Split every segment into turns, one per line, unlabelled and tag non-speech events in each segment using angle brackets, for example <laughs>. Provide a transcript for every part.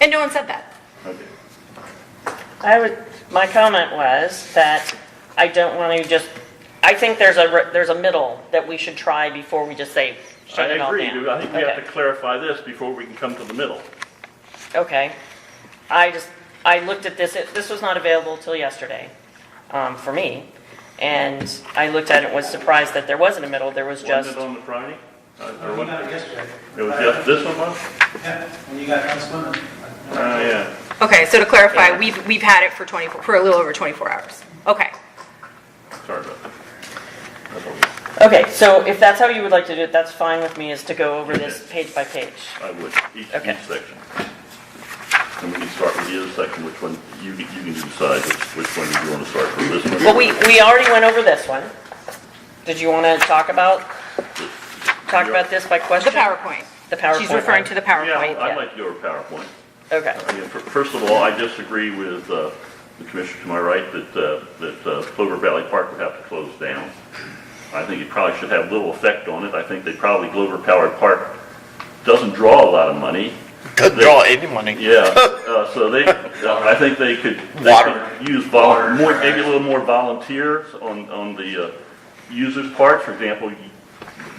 And no one said that.
Okay.
I would, my comment was that I don't want to just, I think there's a, re- there's a middle that we should try before we just say,
I
shut it all
agree,
down.
I think we have
Okay.
to clarify this before we can come to the middle.
Okay. I just, I looked at this, it- this was not available till yesterday, um, for me. And I looked at it, was surprised that there wasn't a middle, there was
Wasn't
just,
it on the Friday? Uh, or
We
what-
got it yesterday.
It was just this one was?
Yeah, and you got us swimming.
Oh, yeah.
Okay, so to clarify, we've, we've had it for 24, for a little over 24 hours. Okay.
Sorry about that. That's what
okay, so if that's how you would like to do it, that's fine with me, is to go over this page by page.
I would, each,
Okay.
each section. And we can start with the other section, which one, you, can- you can decide which, which one you want to start from, this one?
Well, we, we already went over this one. Did you want to talk about, talk about this by
The
question?
PowerPoint.
The PowerPoint.
She's referring to the PowerPoint.
Yeah, I'd
yeah.
like to go over PowerPoint.
Okay,
I mean, fir- first of all, I disagree with uh, the commissioner to my right that, uh, that uh, Clover Valley Park would have to close down. I think it probably should have little effect on it. I think they probably, Clover Powered Park doesn't draw a lot of money.
Doesn't draw any money.
Yeah, uh, so they, I think they could, they
Water.
could use vol, more, maybe a little more volunteers on, on the, uh, users' part, for example, you-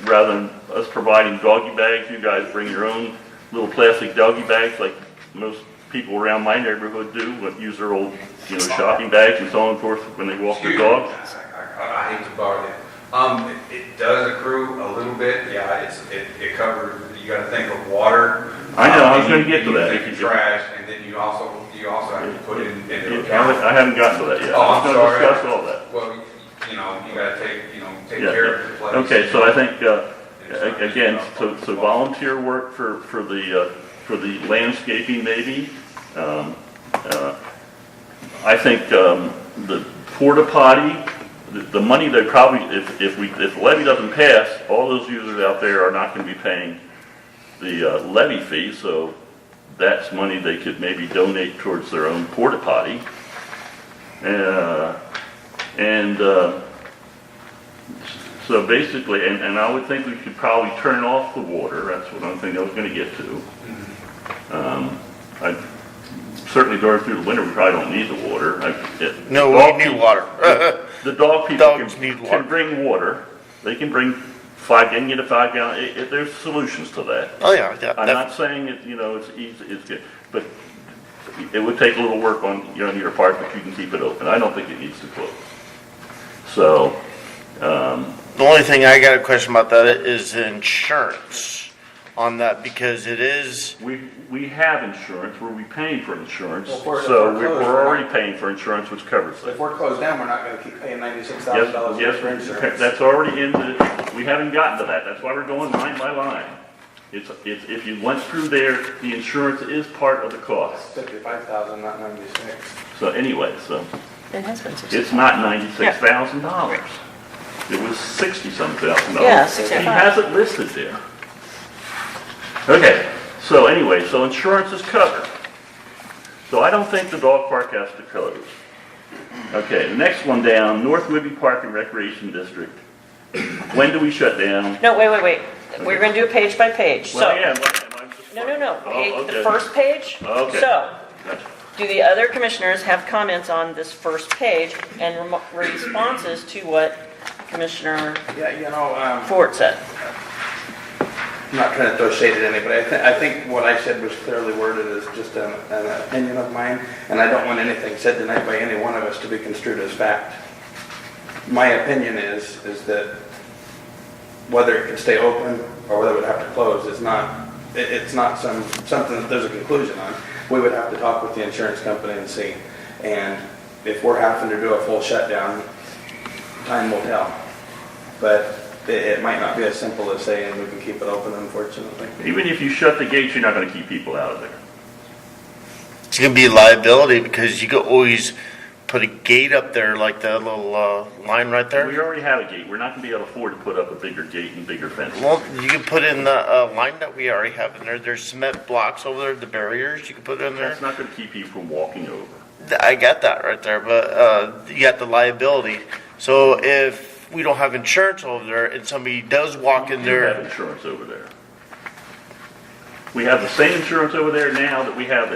rather than us providing doggy bags, you guys bring your own little plastic doggy bags like most people around my neighborhood do, but use their old, you know, shopping bags and so on and forth when they walk their dogs.
I I hate to borrow that. Um, it- it does accrue a little bit, yeah, it's, it, it covers, you gotta think of water.
I know, I was
um,
gonna
and
get to
you-
that.
You think of trash, and then you also, you also have to put in, into account.
I haven't gotten to that yet.
Oh, I'm
I was
sorry.
gonna discuss all that.
Well, you know, you gotta take, you know, take
Yeah,
care of the
yeah.
place.
Okay, so I think, uh,
It's
a-
not just
again,
about
so
public
so
works.
volunteer work for, for the, uh, for the landscaping maybe. Um, uh, I think um, the porta potty, the- the money they probably, if, if we, if the levy doesn't pass, all those users out there are not going to be paying the uh, levy fee, so that's money they could maybe donate towards their own porta potty. Uh, And, uh, so basically, and, and I would think we should probably turn off the water, that's what I'm thinking I was gonna get to. Um, I, certainly during through the winter, we probably don't need the water. I- it-
No,
dog
we need
peop-
water.
The dog people
Dogs
can,
need
can
water.
bring water, they can bring five, they can get a five gallon, it, it, there's solutions to that.
<laughs> Oh, yeah, yeah.
I'm
def-
not saying it, you know, it's easy, it's good, but it would take a little work on, you know, on your part, but you can keep it open. I don't think it needs to close. So,
The only thing I got a question about that is insurance on that because it is,
We, we have insurance, where we paying for insurance,
Well, if we're- if
so
we're
we're,
closed,
we're
we're
already
not-
paying for insurance, which covers
If
that.
we're closed down, we're not gonna keep paying ninety-six thousand
Yes,
dollars for
yes,
insurance.
that's already in the, we haven't gotten to that, that's why we're going line by line. It's, it's, if you went through there, the insurance is part of the cost,
Fifty-five thousand, not ninety-six.
so anyway, so,
it has been six.
it's not ninety-six thousand dollars. It was sixty-some thousand dollars.
Yeah,
He
65.
has it listed there. Okay, so anyway, so insurance is covered. So I don't think the dog park has to close. Okay, the next one down, North Whidbey Park and Recreation District. When do we shut down?
No, wait, wait, wait. We're going to do it page by page, so.
Well, yeah, well, I'm just-
No, no, no.
Oh,
Page- The
okay.
first page?
Okay.
So,
Gotcha.
do the other commissioners have comments on this first page and remo- responses to what Commissioner
Yeah, you know, um,
Ford said?
I'm not trying to throw shade at anybody. I think, I think what I said was clearly worded as just an, an opinion of mine, and I don't want anything said tonight by any one of us to be construed as fact. My opinion is, is that whether it can stay open or whether it would have to close is not, it, it's not some, something that there's a conclusion on. We would have to talk with the insurance company and see. And if we're having to do a full shutdown, time will tell. But it, it might not be as simple as saying we can keep it open, unfortunately.
Even if you shut the gates, you're not gonna keep people out of there.
it's gonna be liability because you could always put a gate up there like that little, uh, line right
We
there.
already have a gate, we're not gonna be able to afford to put up a bigger gate and bigger fence.
Well, you could put in the, uh, line that we already have in there. There's cement blocks over there, the barriers you could put in there.
That's not gonna keep you from walking over.
Th- I got that right there, but uh, you got the liability. So if we don't have insurance over there and somebody does walk in
We do have
there,
insurance over there. We have the same insurance over there now that we have